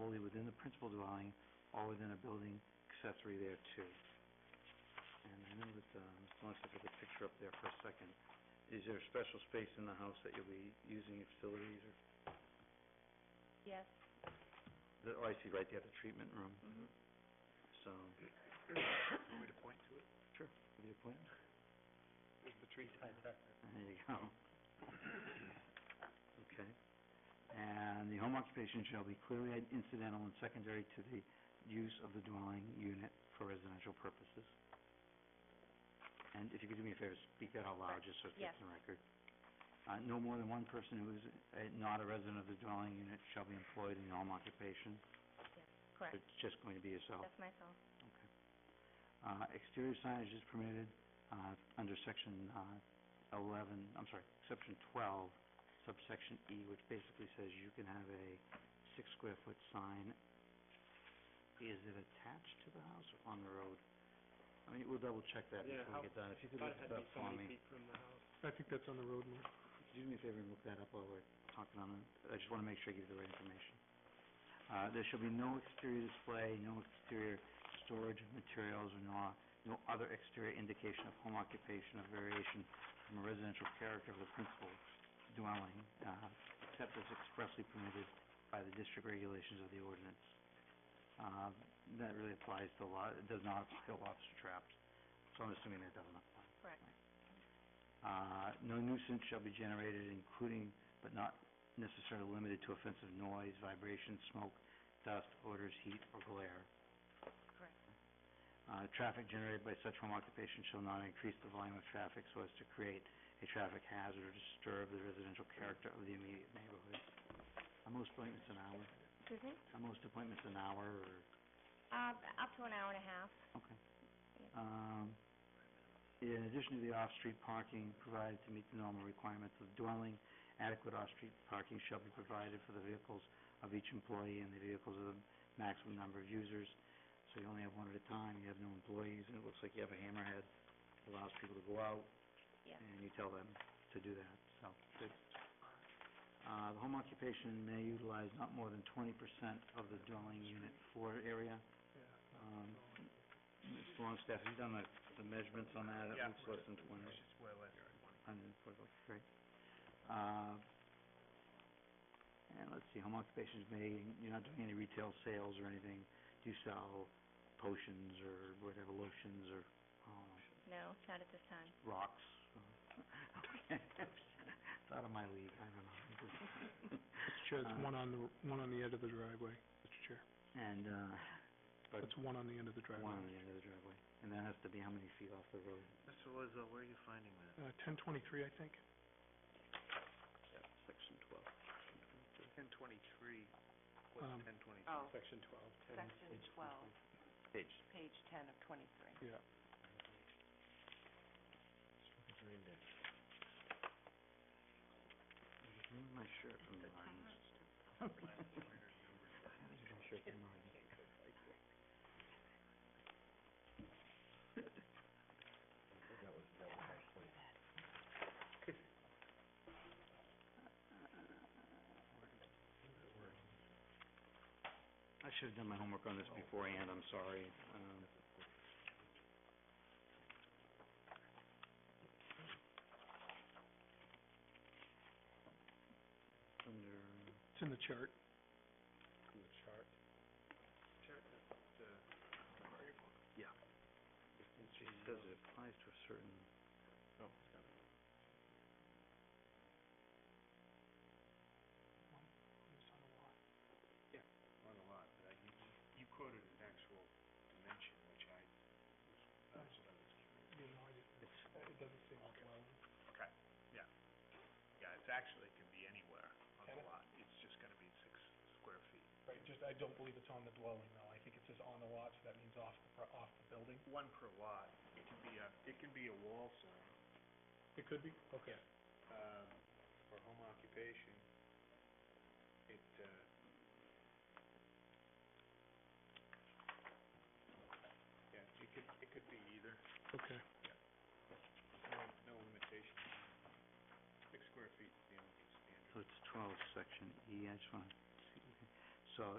within the principal dwelling or within a building accessory thereto. And I know that, um, Melissa took a picture up there for a second. Is there a special space in the house that you'll be using your facilities or, Yes. the- oh, I see, right there, the treatment room, Mm-hmm. so. Want me to point to it? Give you a point? There's the tree sign back there. There you go. Okay. And the home occupation shall be clearly i- incidental and secondary to the use of the dwelling unit for residential purposes. And if you could do me a favor, speak that out loud, just so it's Yes. on the record. Uh, no more than one person who is uh, not a resident of the dwelling unit shall be employed in the home occupation. Correct. It's just going to be yourself. That's myself. Uh, exterior signage is permitted, uh, under section, uh, eleven, I'm sorry, section twelve, subsection E, which basically says you can have a six square foot sign. Is it attached to the house or on the road? I mean, we'll double check that Yeah, before how- we get done. If you could Thought look it up it had to be so for many me. feet from the house. I think that's on the road, Mark. Do me a favor and look that up while we're talking on it. I just wanna make sure I give you the right information. Uh, there shall be no exterior display, no exterior storage of materials, or no, no other exterior indication of home occupation or variation from a residential character of the principal dwelling, uh, except as expressly permitted by the district regulations of the ordinance. Uh, that really applies to lot, it does not apply to lobster traps, so I'm assuming that doesn't apply. Correct. Uh, no nuisance shall be generated, including but not necessarily limited to offensive noise, vibration, smoke, dust, odors, heat, or glare. Correct. Uh, traffic generated by such home occupation shall not increase the volume of traffic so as to create a traffic hazard or disturb the residential character of the immediate neighborhood. Are most appointments an hour? Excuse me? Are most appointments an hour or? Uh, up to an hour and a half. Okay. Um, in addition to the off-street parking provided to meet the normal requirements of dwelling, adequate off-street parking shall be provided for the vehicles of each employee and the vehicles of the maximum number of users. So you only have one at a time, you have no employees, and it looks like you have a hammerhead, allows people to go out, Yes. and you tell them to do that, so, good. Uh, the home occupation may utilize not more than twenty percent of the dwelling unit floor area. Um, Mr. Longstaff, have you done the, the measurements on that? It Yeah. looks less than twenty, It's just way less than twenty. hundred and forty, great. Uh, and let's see, home occupations may, you're not doing any retail sales or anything. Do you sell potions or whatever, lotions or, um, No, not at this time. rocks? Okay. It's out of my league, I don't know. Mr. Chair, Uh, it's one on the, one on the end of the driveway, Mr. Chair. And, uh, but That's one on the end of the one on driveway. the end of the driveway. And that has to be how many feet off the road? Mr. Loizzo, where are you finding that? Uh, ten twenty-three, I think. Section twelve. Ten twenty-three. What's ten twenty-three? Oh. Section twelve. twelve, Page. page ten of twenty-three. Yeah. Remove my shirt from the lines. My shirt from the lines. I should have done my homework on this beforehand, I'm sorry. Um, under- It's in the chart. It says it applies to a certain... Oh, it's got it. On a lot, but I, you, you quoted an actual dimension, which I, that's what I was curious. You know, I It's, it doesn't seem like well. Okay, yeah. Yeah, it's actually, it can be anywhere on the lot, it's just gonna be six square feet. Right, just, I don't believe it's on the dwelling though, I think it says on the lot, so that means off the, pro- off the building. One per lot, it can be a, it can be a wall sign. It could be, okay. Um, for home occupation, it, uh, Yeah, it could, it could be either. Okay. No, no limitation. Six square feet is the only standard. so it's 12, section E, I just want to... So